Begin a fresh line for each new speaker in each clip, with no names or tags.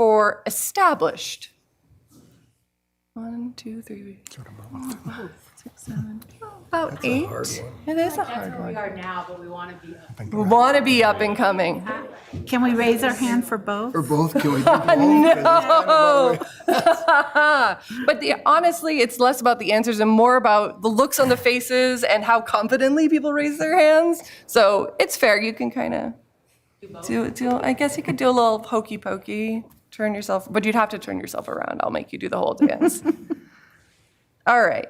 for established. One, two, three, four, six, seven, about eight. It is a hard
We
one.
are now, but we want to be up.
We want to be up and coming.
Can we raise our hand for both?
Or both, can we do both? No.
But the, honestly, it's less about the answers and more about the looks on the faces and how confidently people raise their hands. So it's fair. You can kind of do do. I guess you could do a little hokey pokey, turn yourself, but you'd have to turn yourself around. I'll make you do the whole dance. All right.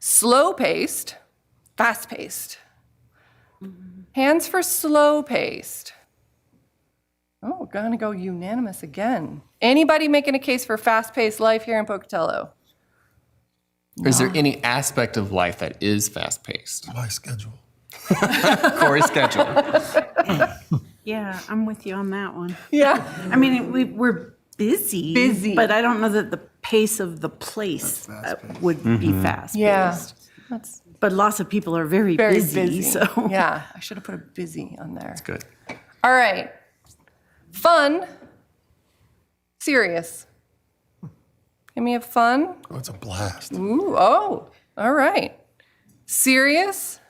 Slow paced, fast paced. Hands for slow paced. Oh, we're gonna go unanimous again. Anybody making a case for fast-paced life here in Pocatello?
Or is there any aspect of life that is fast paced?
My schedule.
Corey's schedule.
Yeah, I'm with you on that one.
Yeah.
I mean, we, we're busy.
Busy.
But I don't know that the pace of the place uh, would be fast.
Yeah.
paced. But lots of people are very
Very
busy, so.
Yeah, I should have put a busy on there.
Good.
All right. Fun. Serious. Can we have fun?
Oh, it's a blast.
Ooh, oh, all right. Serious?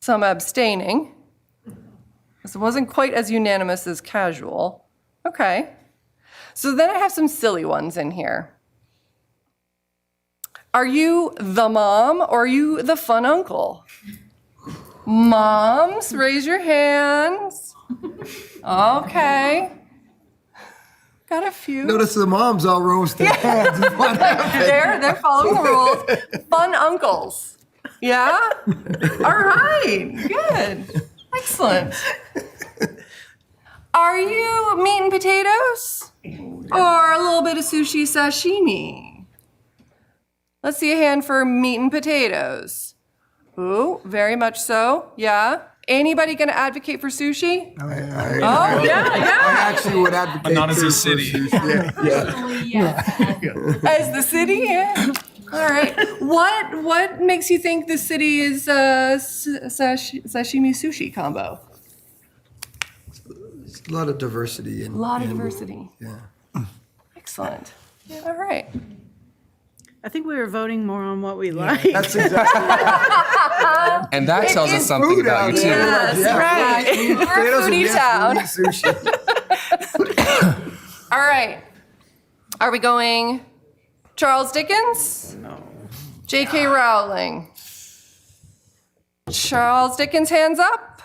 Some abstaining. This wasn't quite as unanimous as casual. Okay. So then I have some silly ones in here. Are you the mom or are you the fun uncle? Moms, raise your hands. Okay. Got a few.
Notice the moms all rose their hands. What happened?
They're they're following the rules. Fun uncles. Yeah? All right. Good. Excellent. Are you meat and potatoes? Or a little bit of sushi sashimi? Let's see a hand for meat and potatoes. Ooh, very much so. Yeah. Anybody gonna advocate for sushi?
I-
Oh,
I
yeah,
I
yeah.
actually would advocate.
Not as a
for-
city.
Yeah, yeah.
Personally, yes.
As the city, yeah. All right. What what makes you think the city is uh, s- sash- sashimi sushi combo?
It's A lot of diversity and.
A lot of diversity.
Yeah.
Excellent. All right.
I think we were voting more on what we like.
That's exactly.
And that tells us
is
something
food
about
out
you too.
there.
Yes,
Yeah.
right. We're a
Potatoes and
foodie
yes,
town.
we need Sushi.
All right. Are we going Charles Dickens? No. J.K. Rowling. Charles Dickens, hands up.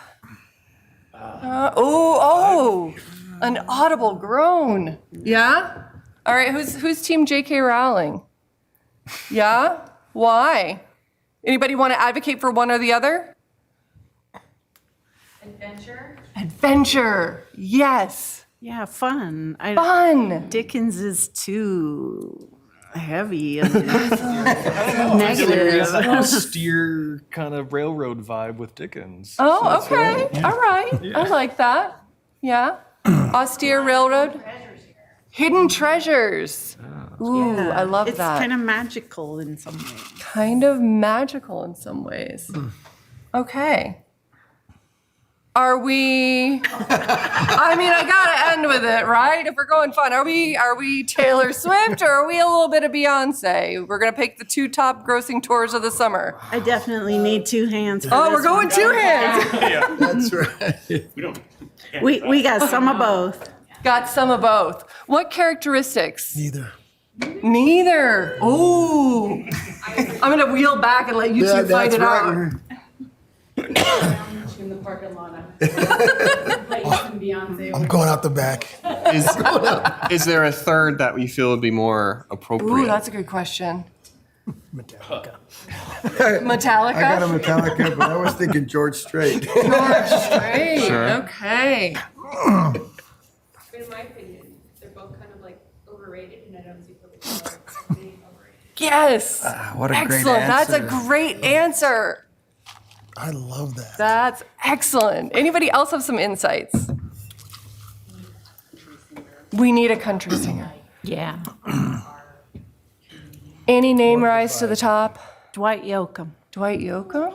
Uh, oh, oh, an audible groan. Yeah? All right, who's, who's team J.K. Rowling? Yeah? Why? Anybody want to advocate for one or the other?
Adventure.
Adventure. Yes.
Yeah, fun. I-
Fun.
Dickens is too heavy and negative.
Like a austere kind of railroad vibe with Dickens.
Oh, okay. All right. I like that. Yeah. Austere Railroad. Hidden treasures.
Oh.
Ooh, I love
It's
that.
kind of magical in some ways.
kind of magical in some ways. Okay. Are we I mean, I got to end with it, right? If we're going fun, are we are we Taylor Swift or are we a little bit of Beyoncé? We're going to pick the two top grossing tours of the summer.
I definitely need two hands. for
Oh, we're
this one.
going two hands.
That's right.
We, we got some of both.
Got some of both. What characteristics?
Neither.
Neither. Ooh. I'm gonna wheel back and let you
Yeah,
two fight
that's
it
right.
out.
In the parking lot. Like some Beyonce.
I'm going out the back.
Is, is there a third that we feel would be more appropriate?
Ooh, that's a good question.
Metallica.
Metallica.
I got a Metallica, but I was thinking George Strait.
Great.
Sure.
Okay.
In my opinion, they're both kind of like overrated and I don't see public are being overrated.
Yes.
Ah, What a great
excellent. That's a
answer.
great answer.
I love that.
That's excellent. Anybody else have some insights? We need a country singer.
Yeah.
Any name rise to the top?
Dwight Yoakam.
Dwight Yoakam?